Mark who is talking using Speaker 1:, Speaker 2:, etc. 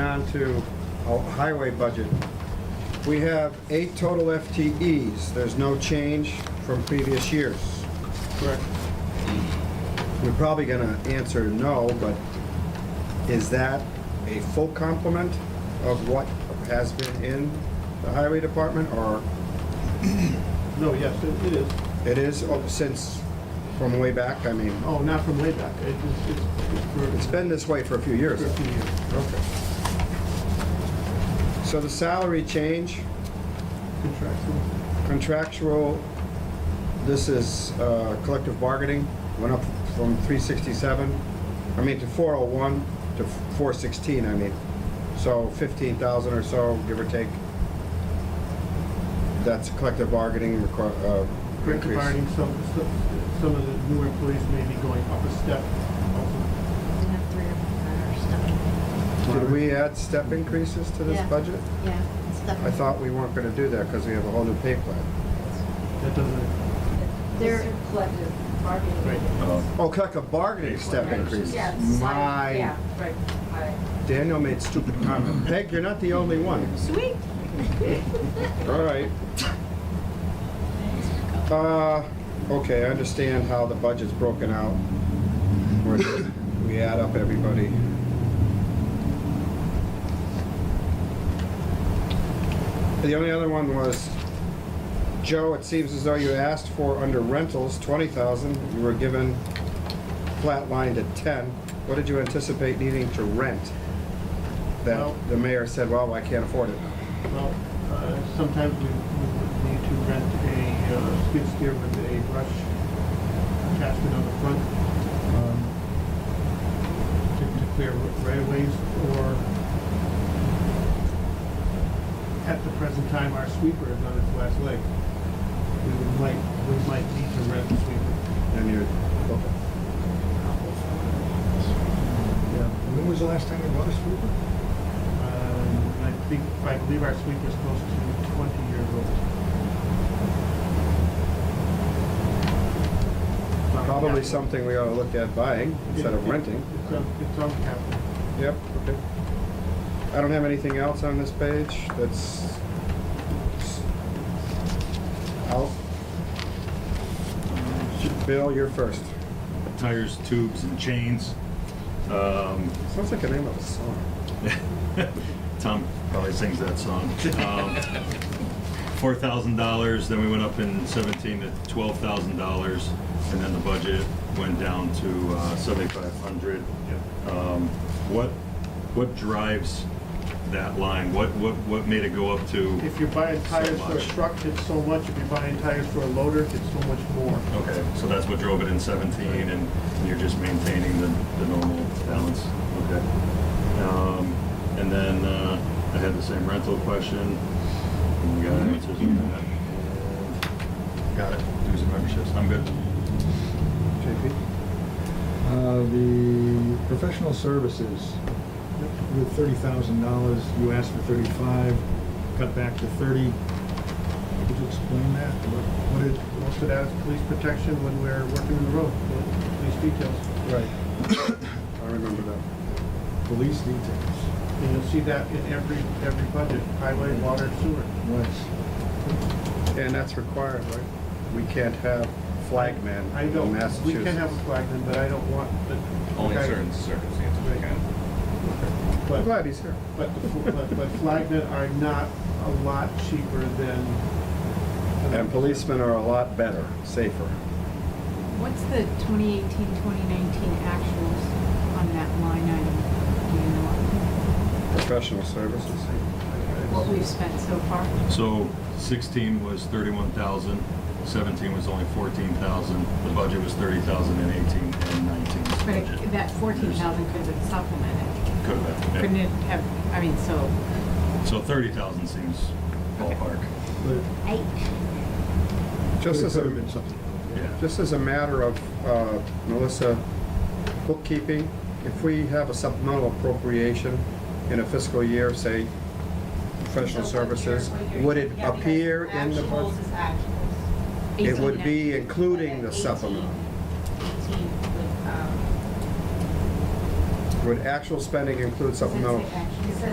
Speaker 1: on to our highway budget. We have eight total FTEs. There's no change from previous years.
Speaker 2: Correct.
Speaker 1: We're probably gonna answer no, but is that a full complement of what has been in the highway department, or
Speaker 2: No, yes, it it is.
Speaker 1: it is oh, since, from way back? I mean,
Speaker 2: Oh, not from way back. It is- It's it's for-
Speaker 1: it's been this way for a few years.
Speaker 2: for a few years.
Speaker 1: Okay. So the salary change,
Speaker 2: Contractual.
Speaker 1: contractual, this is uh, collective bargaining, went up from 367, I mean, to 401, to 416, I mean. So 15,000 or so, give or take. That's collective bargaining requi- uh,
Speaker 2: Great
Speaker 1: increase.
Speaker 2: combining, some, some some of the newer employees may be going up a step also.
Speaker 3: They have three or four stuff.
Speaker 1: Did we add step increases to this
Speaker 3: Yeah.
Speaker 1: budget?
Speaker 3: Yeah, stuff.
Speaker 1: I thought we weren't going to do that because we have a whole new pay plan.
Speaker 2: That doesn't,
Speaker 3: They're-
Speaker 4: They're collective bargaining.
Speaker 2: Right.
Speaker 4: agreements.
Speaker 1: Oh, collective bargaining step
Speaker 4: Right.
Speaker 1: increases.
Speaker 4: Yeah, it's like-
Speaker 1: My
Speaker 4: Yeah, right, right.
Speaker 1: Daniel made stupid comments. Peg, you're not the only one.
Speaker 3: Sweet.
Speaker 1: All right. Uh, okay, I understand how the budget's broken out. Where We add up everybody. The only other one was, Joe, it seems as though you asked for under rentals, twenty thousand, you were given flatlined at ten. What did you anticipate needing to rent? That
Speaker 2: Well-
Speaker 1: the mayor said, well, I can't afford it.
Speaker 2: well, uh, sometimes we we would need to rent a uh, skid steer with a brush attachment on the front um, to to clear railways or at the present time, our sweeper is on its last leg. We would might, we might need to rent a sweeper.
Speaker 1: And you're, okay.
Speaker 5: When was the last time you bought a sweeper?
Speaker 2: Um, I think, I believe our sweep is close to 20 years old. It's on
Speaker 1: Probably
Speaker 2: capital.
Speaker 1: something we ought to look at buying instead of
Speaker 2: It- it-
Speaker 1: renting.
Speaker 2: It's on, it's on capital.
Speaker 1: Yep, okay. I don't have anything else on this page that's s- out. Bill, you're first.
Speaker 6: tires, tubes, and chains. Um,
Speaker 1: Sounds like the name of a song.
Speaker 6: Tom probably sings that song. Um, Four thousand dollars, then we went up in seventeen to twelve thousand dollars, and then the budget went down to uh, seventy-five hundred. Um, What, what drives that line? What, what, what made it go up to?
Speaker 2: If you're buying
Speaker 6: So
Speaker 2: tires for a
Speaker 6: much.
Speaker 2: truck, it's so much. If you're buying tires for a loader, it's so much more.
Speaker 6: Okay, so that's what drove it in seventeen, and you're just maintaining the, the normal balance, okay? Um, and then, uh, I had the same rental question, and we got answers on that. And Got it, dues and memberships, I'm good.
Speaker 1: JP?
Speaker 5: Uh, The professional services, with thirty thousand dollars, you asked for thirty-five, cut back to thirty. Could you explain that? What- What did,
Speaker 2: Most of that is police protection when we're working in the road, the police details.
Speaker 1: Right. I remember that.
Speaker 5: police details?
Speaker 2: And you'll see that in every, every budget, highway, water, sewer.
Speaker 5: What?
Speaker 1: And that's required, right? We can't have flagmen
Speaker 2: I
Speaker 1: in
Speaker 2: don't, we
Speaker 1: Massachusetts.
Speaker 2: can have a flagman, but I don't want the.
Speaker 7: Only in
Speaker 2: Okay.
Speaker 7: certain circumstances we can.
Speaker 1: I'm
Speaker 2: But,
Speaker 1: glad he's here.
Speaker 2: but, the fl- but, but flagmen are not a lot cheaper than.
Speaker 1: And policemen are a lot better, safer.
Speaker 8: What's the 2018, 2019 actuals on that line item? Do you know
Speaker 1: Professional services.
Speaker 8: what we've spent so far?
Speaker 6: So sixteen was thirty-one thousand, seventeen was only fourteen thousand, the budget was thirty thousand and eighteen and nineteen.
Speaker 8: But it- that 14,000 could have supplemented.
Speaker 6: Could have,
Speaker 8: Couldn't
Speaker 6: been,
Speaker 8: it have, I mean, so,
Speaker 6: yeah. So thirty thousand seems ballpark,
Speaker 5: But it-
Speaker 3: Eight.
Speaker 1: Just
Speaker 5: but it
Speaker 1: as
Speaker 5: could
Speaker 1: a
Speaker 5: have been something.
Speaker 6: yeah.
Speaker 1: Just as a matter of, uh, Melissa, bookkeeping, if we have a supplemental appropriation in a fiscal year, say, professional
Speaker 4: So what you're-
Speaker 1: services,
Speaker 4: what you're-
Speaker 1: would it
Speaker 4: yeah, because
Speaker 1: appear in the budget?
Speaker 4: Actuals is actuals.
Speaker 1: It would
Speaker 8: 18,
Speaker 1: be including
Speaker 4: But
Speaker 1: the
Speaker 4: at
Speaker 1: supplemental.
Speaker 4: 18 18 would, um,
Speaker 1: Would actual spending include
Speaker 8: does that
Speaker 1: supplemental?
Speaker 8: say actuals?
Speaker 4: it says